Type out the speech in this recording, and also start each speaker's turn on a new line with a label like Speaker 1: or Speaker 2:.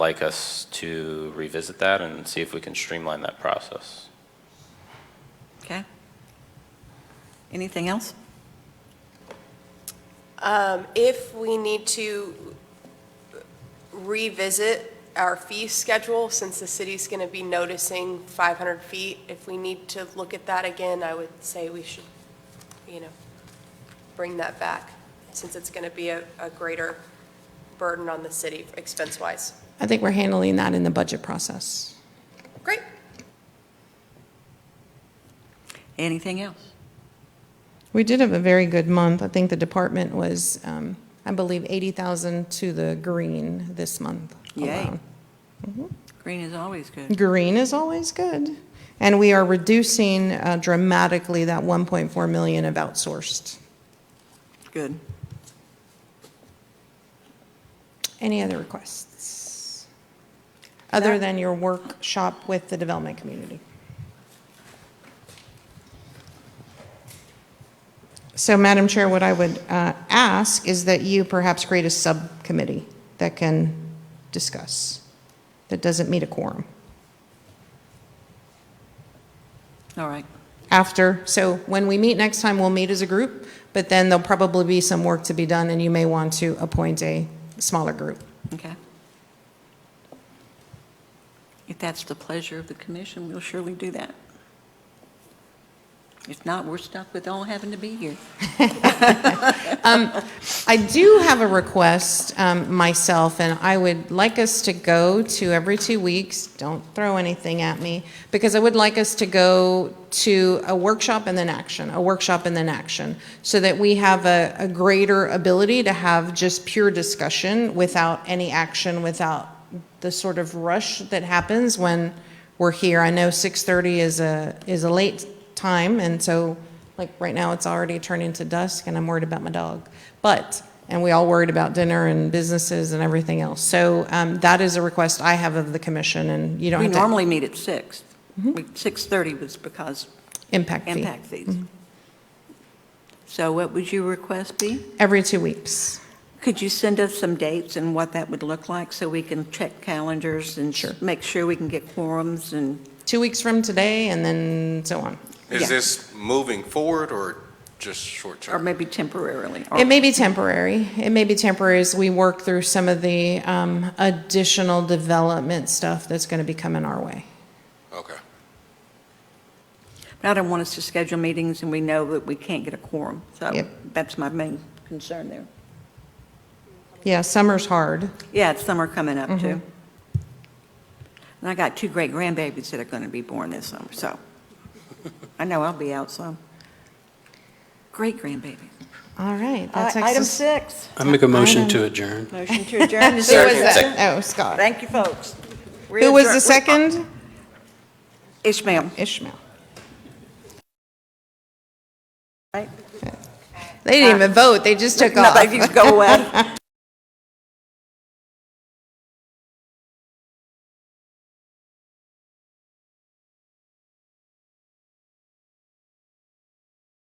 Speaker 1: like us to revisit that and see if we can streamline that process.
Speaker 2: Okay. Anything else?
Speaker 3: Um, If we need to revisit our fee schedule, since the city's going to be noticing 500 feet, if we need to look at that again, I would say we should, you know, bring that back, since it's going to be a a greater burden on the city expense-wise.
Speaker 4: I think we're handling that in the budget process.
Speaker 3: Great.
Speaker 2: Anything else?
Speaker 4: We did have a very good month. I think the department was, um, I believe, 80,000 to the green this month
Speaker 2: Yay.
Speaker 4: alone.
Speaker 2: Green is always good.
Speaker 4: Green is always good. And we are reducing uh, dramatically that 1.4 million of outsourced.
Speaker 2: Good.
Speaker 4: Any other requests? Other than your workshop with the development community? So Madam Chair, what I would uh, ask is that you perhaps create a subcommittee that can discuss, that doesn't meet a quorum.
Speaker 2: All right.
Speaker 4: After, so when we meet next time, we'll meet as a group, but then there'll probably be some work to be done, and you may want to appoint a smaller group.
Speaker 2: Okay. If that's the pleasure of the commission, we'll surely do that. If not, we're stuck with all having to be here.
Speaker 4: I do have a request um, myself, and I would like us to go to every two weeks, don't throw anything at me, because I would like us to go to a workshop and then action, a workshop and then action, so that we have a, a greater ability to have just pure discussion without any action, without the sort of rush that happens when we're here. I know 6:30 is a, is a late time, and so, like, right now, it's already turning to dusk, and I'm worried about my dog. But, and we all worried about dinner and businesses and everything else. So um, that is a request I have of the commission, and you don't
Speaker 2: We
Speaker 4: have to
Speaker 2: normally meet at six. We- 6:30 was because
Speaker 4: impact fee.
Speaker 2: impact fees. So what would your request be?
Speaker 4: Every two weeks.
Speaker 2: Could you send us some dates and what that would look like so we can check calendars and
Speaker 4: Sure.
Speaker 2: make sure we can get quorums and
Speaker 4: Two weeks from today, and then so on.
Speaker 2: Yeah.
Speaker 5: Is this moving forward or just short-term?
Speaker 2: Or maybe temporarily. or-
Speaker 4: It may be temporary. It may be temporary as we work through some of the um, additional development stuff that's going to be coming our way.
Speaker 5: Okay.
Speaker 2: But I don't want us to schedule meetings and we know that we can't get a quorum. So
Speaker 4: Yep.
Speaker 2: that's my main concern there.
Speaker 4: Yeah, summer's hard.
Speaker 2: Yeah, it's summer coming up too. Mm-hmm. And I got two great grandbabies that are going to be born this summer, so I know I'll be out some. Great grandbabies.
Speaker 4: All right.
Speaker 2: All
Speaker 4: that
Speaker 2: right,
Speaker 4: takes
Speaker 2: Uh, Item
Speaker 4: us-
Speaker 2: six,
Speaker 6: I make a motion to adjourn.
Speaker 2: motion to adjourn. Is
Speaker 4: Who
Speaker 2: there a
Speaker 4: was
Speaker 2: second?
Speaker 4: that? Oh, Scott.
Speaker 2: Thank you, folks. We're
Speaker 4: Who was
Speaker 2: adjourn-
Speaker 4: the second?
Speaker 2: Ishmael.
Speaker 4: Ishmael.
Speaker 2: Right.
Speaker 4: They didn't even vote. They just took
Speaker 2: No,
Speaker 4: off.
Speaker 2: you go away.